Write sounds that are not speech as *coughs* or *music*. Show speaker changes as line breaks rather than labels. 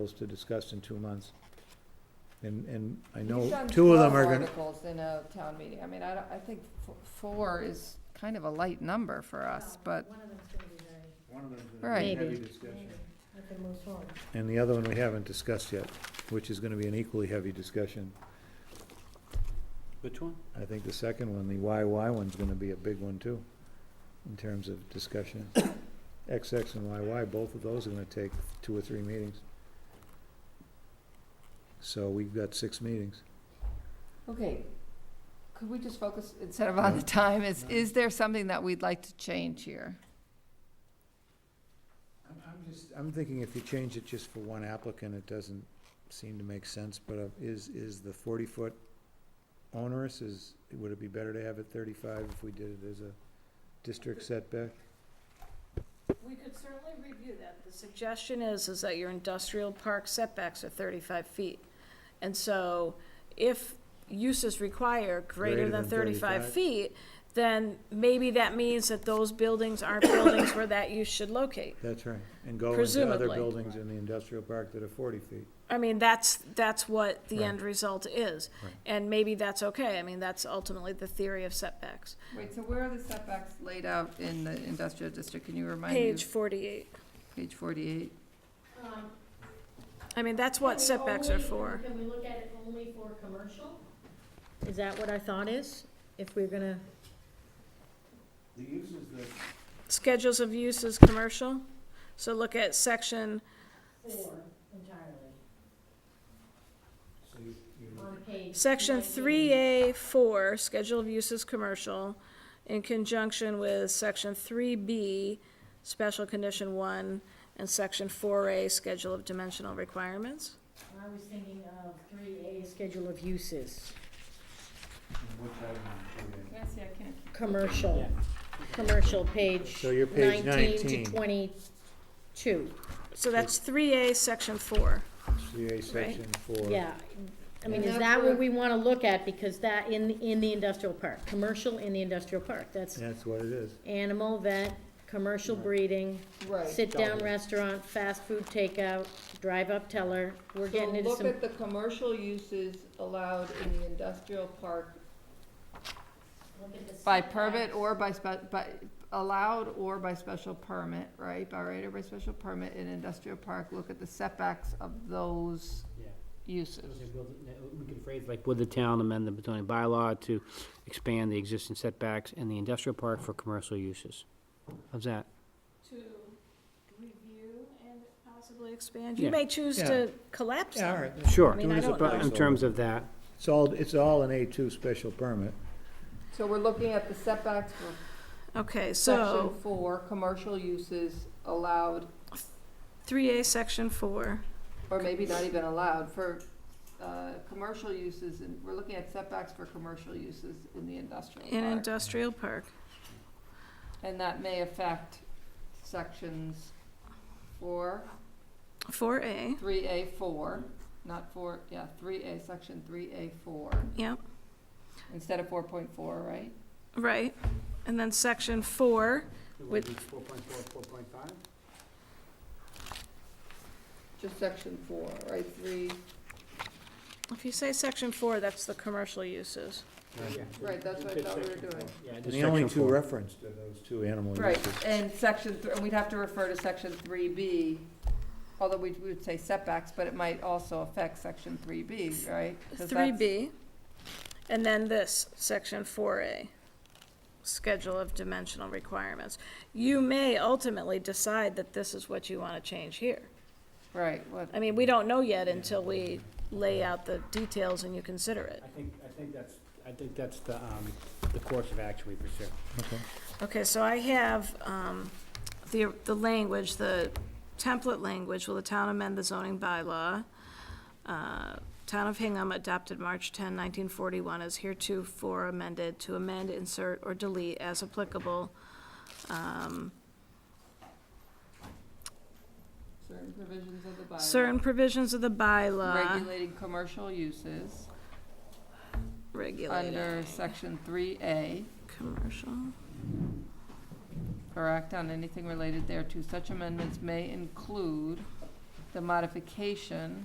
articles to discuss in two months. And, and I know
We've done
two of them
12
are gonna,
Articles in a town meeting, I mean, I don't, I think f- four is kind of a light number for us, but,
One of them's gonna be very,
One of them's gonna be
Right.
heavy
Maybe.
discussion.
maybe, I can move forward.
and the other one we haven't discussed yet, which is gonna be an equally heavy discussion.
Which one?
I think the second one, the YY one's gonna be a big one too, in terms of discussion. *coughs* XX and YY, both of those are gonna take two or three meetings. So we've got six meetings.
okay. Could we just focus, instead of on the time, is, is there something that we'd like to change here?
I'm, I'm just, I'm thinking if you change it just for one applicant, it doesn't seem to make sense, but uh, is, is the forty-foot onerous, is, would it be better to have it thirty-five if we did it as a district setback?
We could certainly review that. The suggestion is, is that your industrial park setbacks are thirty-five feet. And so if uses require greater than thirty-five
35.
feet, then maybe that means that those buildings aren't buildings where that use should locate.
That's right, and go into other
Presumably.
buildings in the industrial park that are forty feet.
I mean, that's, that's what the
Right.
end result is.
Right.
And maybe that's okay. I mean, that's ultimately the theory of setbacks.
Wait, so where are the setbacks laid out in the industrial district? Can you remind me?
Page forty-eight.
Page forty-eight.
Um,
I mean, that's
can
what
we
setbacks are
Um, only-
for.
Can we look at it only for commercial? Is that what our thought is? If we're gonna,
The uses that
Schedules of uses, commercial. So look at section
four entirely,
So you, you,
on page.
Section
19.
three A four, Schedule of Uses Commercial, in conjunction with section three B, Special Condition One, and section four A, Schedule of Dimensional Requirements.
I was thinking of three A, schedule of uses,
which item, okay.
Yes, yeah, I can't.
commercial, commercial, page
So you're page
nineteen to
19.
twenty-two.
So that's three A, section four.
CA section four.
Yeah, I
And
mean, is
that's
that what
what-
we wanna look at, because that, in, in the industrial park, commercial in the industrial park, that's
That's what it is.
animal vet, commercial breeding,
Right.
sit-down restaurant, fast food takeout, drive-up teller, we're getting into
look
some,
at the commercial uses allowed in the industrial park. By permit or by spe- by, allowed or by special permit, right, by right or by special permit in industrial park, look at the setbacks of those
Yeah.
uses.
We can phrase like, would the town amend the Betonia bylaw to expand the existing setbacks in the industrial park for commercial uses? How's that?
To review and possibly expand.
You
You
Yeah.
may choose
Yeah.
to collapse
Yeah, all
them.
right.
Sure,
I mean, I
municipal-
don't
know.
in terms of that,
It's all, it's all an A two special permit.
So we're looking at the setbacks for
Okay,
section
so
four, commercial uses allowed,
three A, section four.
or maybe not even allowed, for, uh, commercial uses, and we're looking at setbacks for commercial uses in the industrial
In
park.
industrial park.
And that may affect sections four,
Four A,
three A four, not four, yeah, three A, section three A four,
yep,
instead of four point four, right?
right. And then section four, With-
Four point four, four point five?
Just section four, right, three,
If you say section four, that's the commercial uses.
right, that's what I thought we were doing.
Yeah,
And
just
the only
section
two
four.
referenced are those two animal
Right,
uses.
and section, thr- and we'd have to refer to section three B, although we we would say setbacks, but it might also affect section three B, right? 'Cause
Three
that's-
B, and then this, section four A, schedule of dimensional requirements. You may ultimately decide that this is what you want to change here.
Right, what,
I mean, we don't know yet until we lay out the details and you consider it.
I think, I think that's, I think that's the, um, the course of action we pursue.
Okay, so I have, um, the, the language, the template language, will the town amend the zoning bylaw? Uh, Town of Hingham adopted March 10, 1941, as heretofore amended to amend, insert, or delete as applicable. um,
certain provisions of the bylaw.
Certain provisions of the bylaw
Regulating commercial uses under
regulated,
section three A,
commercial.
or act on anything related thereto. Such amendments may include the modification